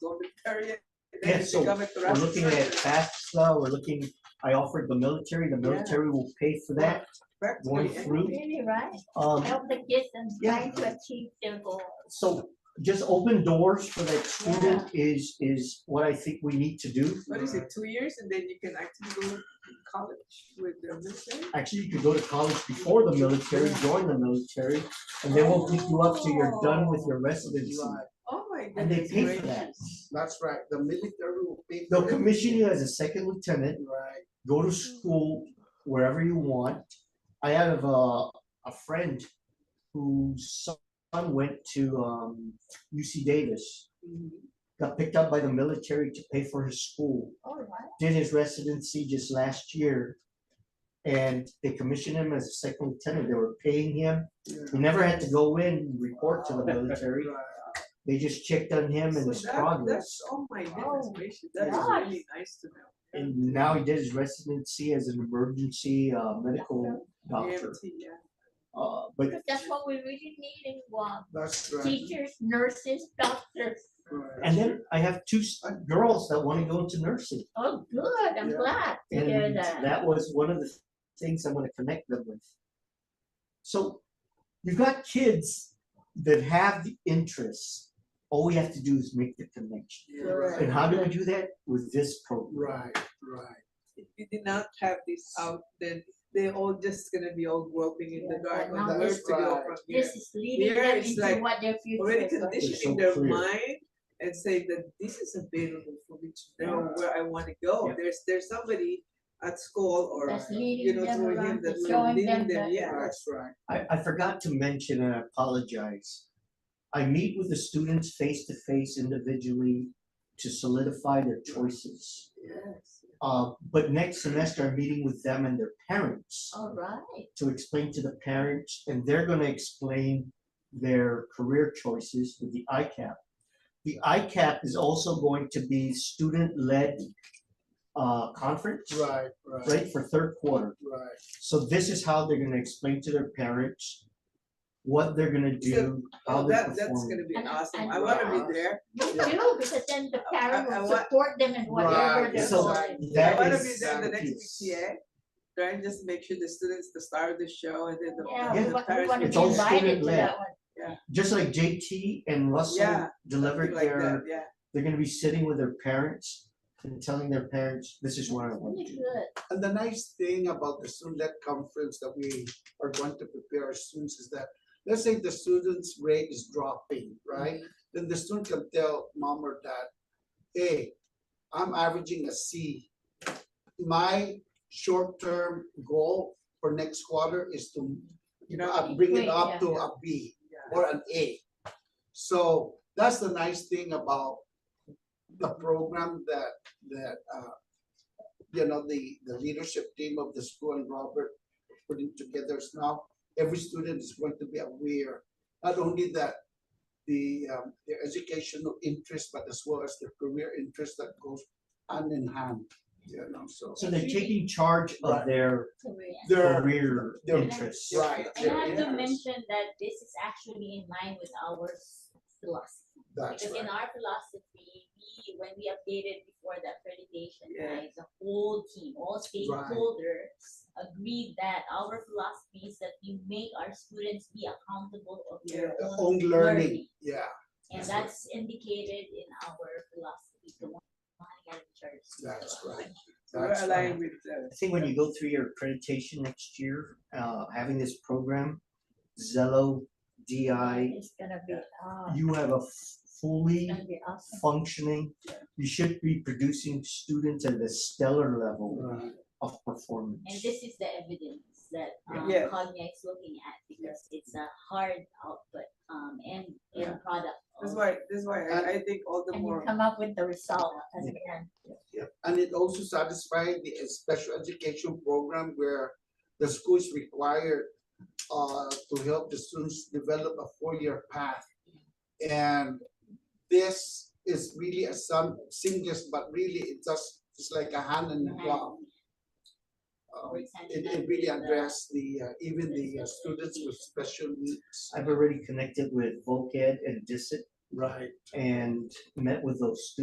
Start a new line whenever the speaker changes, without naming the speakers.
don't carry it. and
Yeah,
then
so
you come at the
We're
rest of
looking
the
at
time.
FAFSA, we're looking, I offered the military, the
Yeah.
military will pay for that going
Practically,
through.
Really, right?
Um,
Help the kids and
Yeah.
trying to achieve their goal.
so just open doors for that school is, is what I think we need to do.
what is it, two years and then you can actually go to college with the military?
Actually, you could go to college before the military, join the military, and they won't pick you up till you're done with your residency.
Oh my
And they
goodness
pay for that.
gracious.
That's right, the military will pay.
They'll
for it.
commission you as a second lieutenant,
Right,
go to school wherever you want. I have a, a friend whose son went to um, UC Davis,
Mhm.
got picked up by the military to pay for his school,
All right.
did his residency just last year. And they commissioned him as a second lieutenant. They were paying him.
yeah,
He never had to go in and report to the military.
right.
They just checked on him and
So
his
that-
progress.
That's, oh my goodness
Oh,
gracious, that's
yeah.
really nice to know.
And now he did his residency as an emergency uh, medical doctor.
EMT, yeah.
Uh, but
Because that's what we really need in Guam.
That's right.
Teachers, nurses, doctors.
right.
and then I have two s- uh, girls that want to go into nursing,
Oh, good. I'm
Yeah.
glad to hear
and
that.
that was one of the things I'm going to connect them with. So you've got kids that have the interests. All we have to do is make the connection.
Yeah,
Right.
And how do we do that with this program?
Right, right.
If we did not have this out, then they're all just gonna be all groping in the
Yeah,
dark
now
on where
this-
to go
Right.
from here.
This is leading
Here
them
it's
into
like
what their future
Already
is. going to be.
conditioning
so
their
clear.
mind and say that this is available for me to know where I wanna go.
Yeah.
There's, there's somebody at school or,
That's
you
leading
know,
them
through him
around,
that
that's
will
showing
leading
them
them,
that.
yeah.
That's right.
I, I forgot to mention, and I apologize. I meet with the students face to face individually to solidify their choices.
Yes.
Uh, but next semester, I'm meeting with them and their parents
All right.
to explain to the parents, and they're gonna explain their career choices with the ICAP. The ICAP is also going to be student-led, uh, conference,
Right, right,
right, for third quarter.
right.
So this is how they're gonna explain to their parents what they're gonna do, how
Oh,
they're
that, that's
performing.
gonna be
And-
awesome.
and-
I wanna be there.
Me
Yeah.
too, because then the
I-
parent
I
will
want-
support them in whatever
Right,
they're
So
doing.
I
that
wanna
is.
be there the
that
next
is-
PTA, try and just make sure the students, the star of the show and then the.
Yeah,
the
we want, we
parents
want to
It's
be
all
will-
invited to
student-led.
that one.
Just like JT and Russell
Yeah,
delivered
something like that,
their,
Yeah.
they're gonna be sitting with their parents and telling their parents, this is what I want
Really
to do.
good.
And the nice thing about the student-led conference that we are going to prepare our students is that, let's say the student's grade is dropping, right? Then the student can tell mom or dad, hey, I'm averaging a C. My short-term goal for next quarter is to, you know, uh, bring it
Great,
up
yeah.
to a B
Yeah.
or an A. So that's the nice thing about the program that, that, uh, you know, the, the leadership team of the school and Robert putting together is now, every student is going to be aware, not only that the, um, their educational interest, but as well as their career interest that goes hand in hand, you know, so.
So they're taking charge of
Right.
their
Korea.
They're,
career
they're-
interests.
right.
And I have
their
to
interest.
mention that this is actually in line with our s- philosophy.
That's
Because in
right,
our philosophy, we, when we updated before the accreditation,
Yeah.
right, the whole team, all stakeholders agreed that our philosophy is that we make our students be accountable of their
The
own
own learning, yeah,
And
That's right.
that's indicated in our philosophy, the one, one Academy Church.
That's
philosophy.
So we're
that's right.
aligned with the.
I think when you go through your accreditation next year, uh, having this program, Zello, DI,
It's gonna be, ah,
you have a fully
it's gonna be awesome.
functioning, you should be producing students at a stellar level
Right.
of performance.
And this is the evidence that um,
Yes.
Cognia is looking at because it's a hard output um, and
Yeah.
end product.
That's
of-
why, that's why
And-
I, I think all the
And you
more,
come up with the result as an end.
Yep, and it also satisfied the uh, special education program where the school is required uh to help the students develop a four-year path. And this is really a some singles, but really it just, it's like a hand in the glove. Um, It it really addressed the, uh, even the uh, students with special needs.
I've already connected with Voc Ed and DISIT
Right.
and met with those students.